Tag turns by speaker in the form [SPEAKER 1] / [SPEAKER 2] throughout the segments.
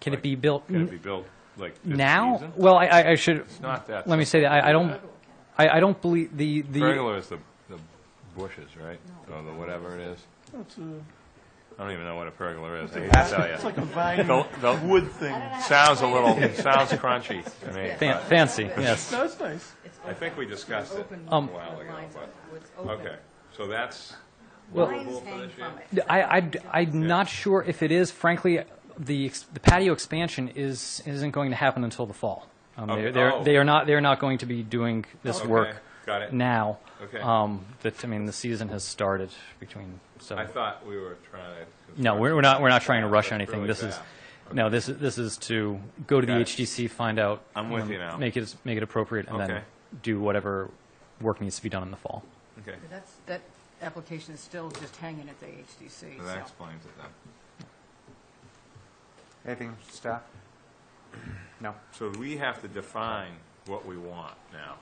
[SPEAKER 1] Can it be built
[SPEAKER 2] Can it be built like this season?
[SPEAKER 1] now? Well, I- I, I should,
[SPEAKER 2] It's not that.
[SPEAKER 1] let me say that, I, I don't, I, I don't believe the, the,
[SPEAKER 2] Pergola is the, the bushes, right? Or the whatever it is.
[SPEAKER 3] It's a,
[SPEAKER 2] I don't even know what a pergola is, I hate to tell
[SPEAKER 3] it's
[SPEAKER 2] you.
[SPEAKER 3] like a vine
[SPEAKER 2] The, the
[SPEAKER 3] wood thing.
[SPEAKER 2] sounds a little, sounds crunchy to me.
[SPEAKER 1] fan-
[SPEAKER 2] but
[SPEAKER 1] fancy, yes.
[SPEAKER 3] No, it's nice.
[SPEAKER 2] I think we discussed it a
[SPEAKER 1] Um,
[SPEAKER 2] while ago, but,
[SPEAKER 4] It's open.
[SPEAKER 2] okay. So that's
[SPEAKER 1] Well-
[SPEAKER 2] doable
[SPEAKER 4] Lines
[SPEAKER 2] for
[SPEAKER 4] hang
[SPEAKER 2] this year?
[SPEAKER 4] from it.
[SPEAKER 1] I, I, I'm not sure if it is, frankly, the ex- the patio expansion is, isn't going to happen until the fall. Um,
[SPEAKER 2] Okay.
[SPEAKER 1] They're, they're-
[SPEAKER 2] Oh.
[SPEAKER 1] they are not, they're not going to be doing this
[SPEAKER 2] Okay,
[SPEAKER 1] work
[SPEAKER 2] got it.
[SPEAKER 1] now.
[SPEAKER 2] Okay.
[SPEAKER 1] Um, That, I mean, the season has started between, so.
[SPEAKER 2] I thought we were trying to.
[SPEAKER 1] No, we're, we're not, we're not trying to rush
[SPEAKER 2] That's
[SPEAKER 1] anything.
[SPEAKER 2] really
[SPEAKER 1] This is,
[SPEAKER 2] bad.
[SPEAKER 1] no, this is, this is to go to the
[SPEAKER 2] Got it.
[SPEAKER 1] HDC, find out.
[SPEAKER 2] I'm with
[SPEAKER 1] um,
[SPEAKER 2] you now.
[SPEAKER 1] Make it, make it appropriate and then
[SPEAKER 2] Okay.
[SPEAKER 1] do whatever work needs to be done in the fall.
[SPEAKER 2] Okay,
[SPEAKER 4] That's, that application is still just hanging at the HDC,
[SPEAKER 2] so that
[SPEAKER 4] so.
[SPEAKER 2] explains it then.
[SPEAKER 5] Anything, staff? No.
[SPEAKER 2] So we have to define what we want now,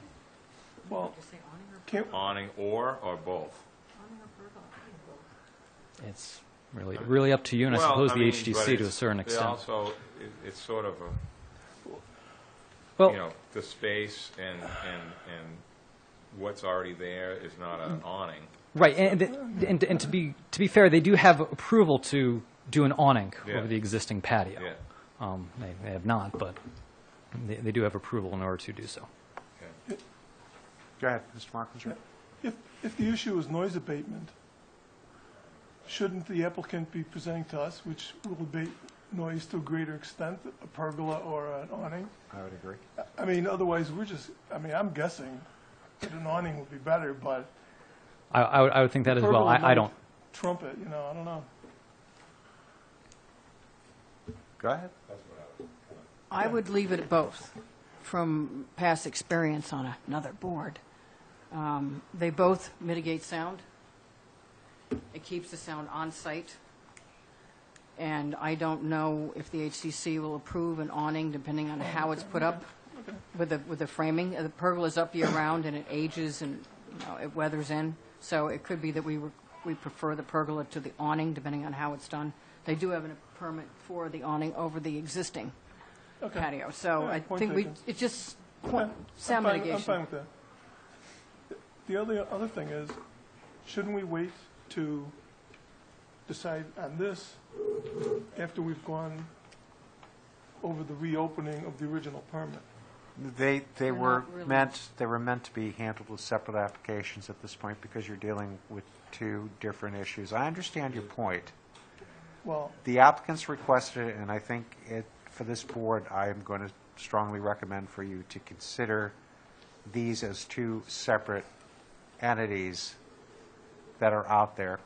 [SPEAKER 3] Well,
[SPEAKER 4] Just say awning or-
[SPEAKER 3] can't,
[SPEAKER 2] awning or, or both?
[SPEAKER 4] awning or pergola, awning or pergola.
[SPEAKER 1] It's really, really up to you and I
[SPEAKER 2] Well,
[SPEAKER 1] suppose the
[SPEAKER 2] mean, but
[SPEAKER 1] HDC to a
[SPEAKER 2] it's-
[SPEAKER 1] certain
[SPEAKER 2] they
[SPEAKER 1] extent.
[SPEAKER 2] also, it- it's sort of a, you
[SPEAKER 1] Well,
[SPEAKER 2] know, the space and, and, and what's already there is not an awning.
[SPEAKER 1] right, and, and, and to be, to be fair, they do have approval to do an awning
[SPEAKER 2] Yeah.
[SPEAKER 1] over the existing patio.
[SPEAKER 2] Yeah,
[SPEAKER 1] Um, They, they have not, but they, they do have approval in order to do so.
[SPEAKER 2] okay.
[SPEAKER 5] Go ahead, Mr. Markinger.
[SPEAKER 3] if, if the issue is noise abatement, shouldn't the applicant be presenting to us, which will abate noise to a greater extent, a pergola or an awning?
[SPEAKER 5] I would agree.
[SPEAKER 3] I mean, otherwise, we're just, I mean, I'm guessing that an awning would be better, but
[SPEAKER 1] I, I would, I would think that as well.
[SPEAKER 3] Pergola
[SPEAKER 1] I, I
[SPEAKER 3] might-
[SPEAKER 1] don't,
[SPEAKER 3] trumpet, you know, I don't know.
[SPEAKER 5] Go ahead.
[SPEAKER 4] I would leave it at both, from past experience on another board. Um, They both mitigate sound. It keeps the sound on-site. And I don't know if the HCC will approve an awning, depending on how it's put up with the, with the framing. Uh, The pergola's up year-round, and it ages and, you know, it weathers in. So it could be that we, re- we prefer the pergola to the awning, depending on how it's done. They do have a permit for the awning over the existing patio, so
[SPEAKER 3] Yeah,
[SPEAKER 4] I
[SPEAKER 3] point
[SPEAKER 4] think we,
[SPEAKER 3] taken.
[SPEAKER 4] it's just
[SPEAKER 3] Yeah,
[SPEAKER 4] point- sound
[SPEAKER 3] I'm fine- I'm fine
[SPEAKER 4] mitigation.
[SPEAKER 3] with that. The other, other thing is, shouldn't we wait to decide on this after we've gone over the reopening of the original permit?
[SPEAKER 5] They, they
[SPEAKER 4] They're
[SPEAKER 5] were
[SPEAKER 4] not really-
[SPEAKER 5] meant, they were meant to be handled as separate applications at this point because you're dealing with two different issues. I understand your point.
[SPEAKER 3] Well,
[SPEAKER 5] The applicants requested it, and I think it, for this board, I am going to strongly recommend for you to consider these as two separate entities that are out there.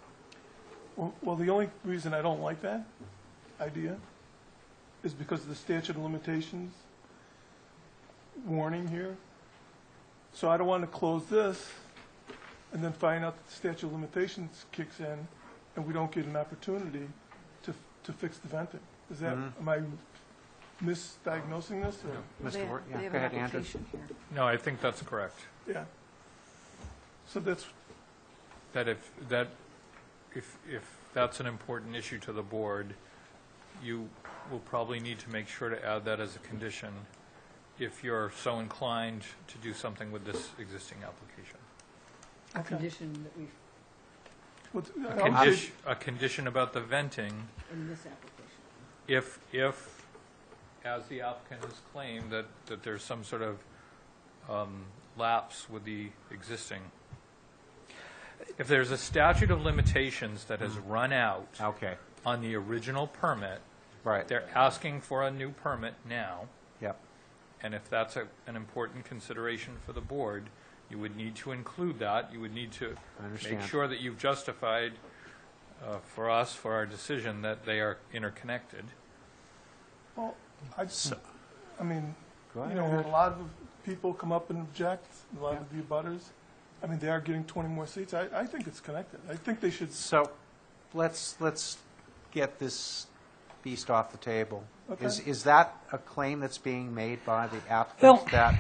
[SPEAKER 3] well- well, the only reason I don't like that idea is because of the statute of limitations warning here. So I don't want to close this and then find out that the statute of limitations kicks in and we don't get an opportunity to, to fix the venting. Is that, am I misdiagnosing this or?
[SPEAKER 4] They-
[SPEAKER 5] Mr. Ward,
[SPEAKER 4] they
[SPEAKER 5] yeah,
[SPEAKER 4] have
[SPEAKER 5] go ahead,
[SPEAKER 4] an
[SPEAKER 5] Andrew.
[SPEAKER 4] application here.
[SPEAKER 6] No, I think that's correct.
[SPEAKER 3] Yeah. So that's,
[SPEAKER 6] That if, that, if, if that's an important issue to the board, you will probably need to make sure to add that as a condition if you're so inclined to do something with this existing application.
[SPEAKER 4] A condition that we've,
[SPEAKER 3] what's-
[SPEAKER 6] A condition, a condition about the venting,
[SPEAKER 4] in this application.
[SPEAKER 6] if, if, as the applicant has claimed, that, that there's some sort of um, lapse with the existing. If there's a statute of limitations that has run out
[SPEAKER 5] Okay,
[SPEAKER 6] on the original permit,
[SPEAKER 5] right,
[SPEAKER 6] They're asking for a new permit now,
[SPEAKER 5] yep.
[SPEAKER 6] and if that's a- an important consideration for the board, you would need to include that. You would need to
[SPEAKER 5] I
[SPEAKER 6] make
[SPEAKER 5] understand.
[SPEAKER 6] sure that you've justified uh, for us, for our decision, that they are interconnected.
[SPEAKER 3] Well, I, I mean,
[SPEAKER 5] Go
[SPEAKER 3] you know,
[SPEAKER 5] ahead.
[SPEAKER 3] a lot of people come up and object, a lot of the abutters. I mean, they are getting 20 more seats. I, I think it's connected. I think they should,
[SPEAKER 5] So let's, let's get this beast off the table. Is,
[SPEAKER 3] Okay.
[SPEAKER 5] is that a claim that's being made by the
[SPEAKER 1] Well-
[SPEAKER 5] applicant that?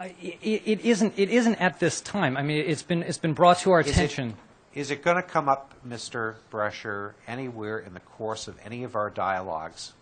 [SPEAKER 1] I- i- it isn't, it isn't at this time. I mean, it's been, it's been brought to our
[SPEAKER 5] is it-
[SPEAKER 1] attention.
[SPEAKER 5] Is it going to come up, Mr. Brescher, anywhere in the course of any of our dialogues?